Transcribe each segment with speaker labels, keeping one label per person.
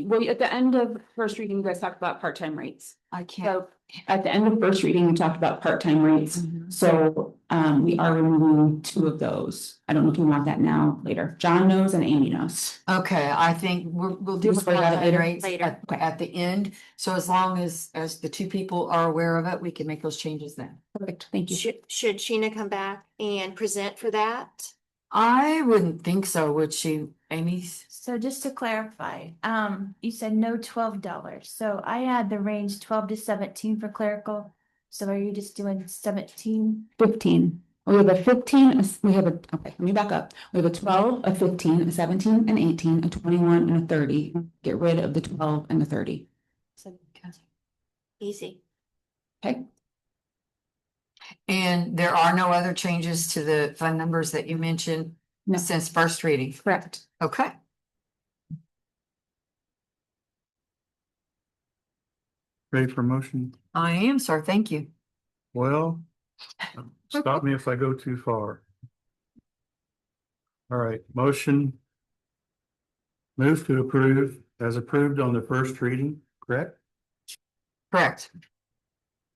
Speaker 1: well, at the end of first reading, you guys talked about part-time rates.
Speaker 2: I can't.
Speaker 1: So at the end of first reading, we talked about part-time rates.
Speaker 2: Mm-hmm.
Speaker 1: So um, we are removing two of those. I don't know if you want that now, later. John knows and Amy knows.
Speaker 2: Okay, I think we're, we'll do
Speaker 1: Just
Speaker 2: the
Speaker 1: worry about it
Speaker 2: contact
Speaker 1: later.
Speaker 2: rates at, at the end. So as long as, as the two people are aware of it, we can make those changes then.
Speaker 1: Perfect, thank you.
Speaker 3: Should, should Sheena come back and present for that?
Speaker 2: I wouldn't think so, would she, Amy's?
Speaker 4: So just to clarify, um, you said no twelve dollars, so I had the range twelve to seventeen for clerical. So are you just doing seventeen?
Speaker 1: Fifteen. We have a fifteen, a s- we have a, okay, let me back up. We have a twelve, a fifteen, a seventeen, an eighteen, a twenty-one, and a thirty. Get rid of the twelve and the thirty.
Speaker 3: Easy.
Speaker 2: And there are no other changes to the fund numbers that you mentioned
Speaker 1: No.
Speaker 2: since first reading?
Speaker 1: Correct.
Speaker 2: Okay.
Speaker 5: Ready for motion?
Speaker 2: I am, sir. Thank you.
Speaker 5: Well, stop me if I go too far. All right, motion. Move to approve as approved on the first reading, correct?
Speaker 2: Correct.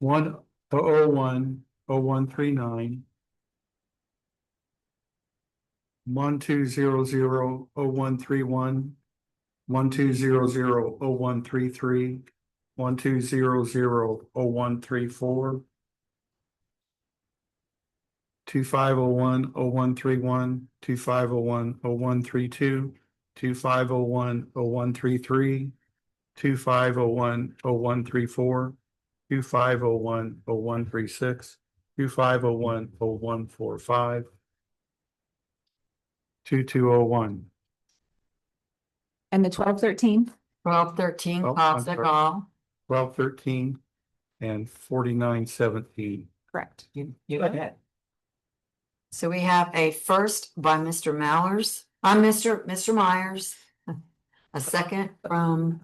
Speaker 5: One oh oh one oh one three nine. One two zero zero oh one three one. One two zero zero oh one three three. One two zero zero oh one three four. Two five oh one oh one three one, two five oh one oh one three two, two five oh one oh one three three. Two five oh one oh one three four two five oh one oh one three six, two five oh one oh one four five, two two oh one.
Speaker 1: And the twelve, thirteen?
Speaker 2: Twelve, thirteen,
Speaker 5: Oh,
Speaker 2: Cobb,
Speaker 5: I'm
Speaker 2: that
Speaker 5: sorry.
Speaker 2: all.
Speaker 5: Twelve thirteen and forty-nine seventeen.
Speaker 1: Correct.
Speaker 2: You, you got it. So we have a first by Mr. Mallers, uh, Mr. Mr. Myers. A second from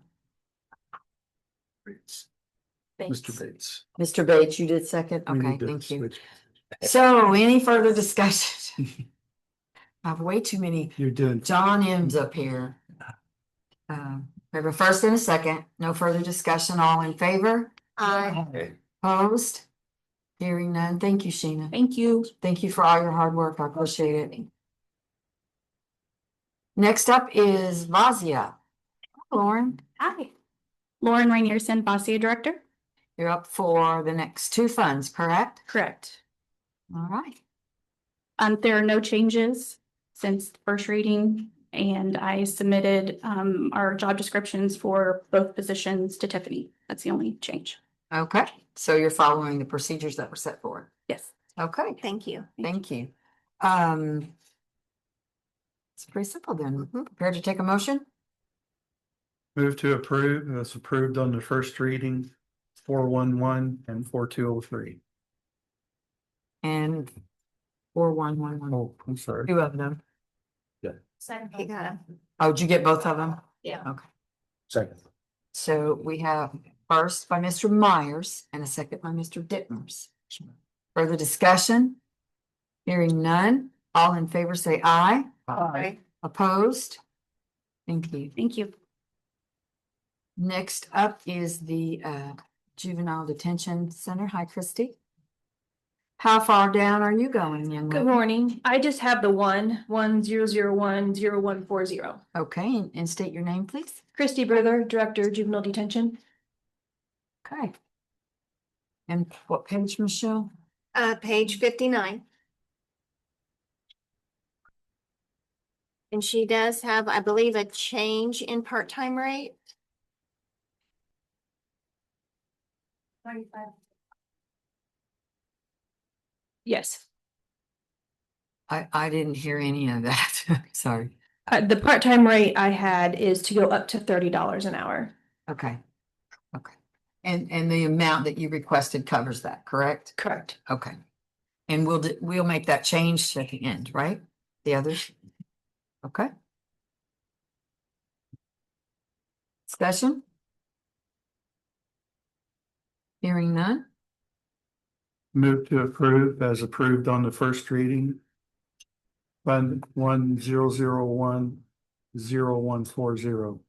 Speaker 5: Mr. Bates.
Speaker 2: Mr. Bates. You did second?
Speaker 5: we
Speaker 2: Okay,
Speaker 5: need to
Speaker 2: thank you.
Speaker 5: switch.
Speaker 2: So any further discussion? I have way too many
Speaker 5: You're doing,
Speaker 2: John M's up here. Um, we have a first and a second. No further discussion. All in favor?
Speaker 3: Uh,
Speaker 2: Opposed? Hearing none. Thank you, Sheena.
Speaker 1: Thank you.
Speaker 2: Thank you for all your hard work. I appreciate it. Next up is Vazia. Lauren,
Speaker 3: hi.
Speaker 6: Lauren Rainierson, Bossier Director.
Speaker 2: you're up for the next two funds, correct?
Speaker 6: Correct.
Speaker 2: All right.
Speaker 6: Um, there are no changes since the first reading, and I submitted, um, our job descriptions for both positions to Tiffany. That's the only change.
Speaker 2: Okay, so you're following the procedures that were set forward.
Speaker 6: Yes.
Speaker 2: Okay,
Speaker 3: Thank you.
Speaker 2: thank you. Um. It's pretty simple then. Prepared to take a motion?
Speaker 5: move to approve, that's approved on the first reading, four one one and four two oh three.
Speaker 2: And four, one, one, one,
Speaker 5: Oh, I'm sorry.
Speaker 2: two of them.
Speaker 3: Okay, got him.
Speaker 2: Oh, did you get both of them?
Speaker 3: Yeah.
Speaker 2: Okay,
Speaker 5: Second.
Speaker 2: so we have first by Mr. Myers and a second by Mr. Dittmers. Further discussion? Hearing none, all in favor say aye.
Speaker 3: Aye.
Speaker 2: Opposed? Thank you.
Speaker 6: Thank you.
Speaker 2: Next up is the uh juvenile detention center. Hi, Christy. How far down are you going, young
Speaker 7: Good
Speaker 2: lady?
Speaker 7: morning. I just have the one, one zero zero one zero one four zero.
Speaker 2: Okay, and- and state your name, please.
Speaker 7: Christy Brother, Director Juvenile Detention.
Speaker 2: Okay. And what page, Michelle?
Speaker 3: Uh, page fifty-nine. And she does have, I believe, a change in part-time rate.
Speaker 6: Yes.
Speaker 2: I I didn't hear any of that. Sorry.
Speaker 7: Uh, the part-time rate I had is to go up to thirty dollars an hour.
Speaker 2: Okay. Okay. And and the amount that you requested covers that, correct?
Speaker 7: Correct.
Speaker 2: Okay. And we'll, d- we'll make that change at the end, right? The others? Okay. Discussion? Hearing none?
Speaker 5: Move to approve as approved on the first reading. Fund one zero zero one zero one four zero.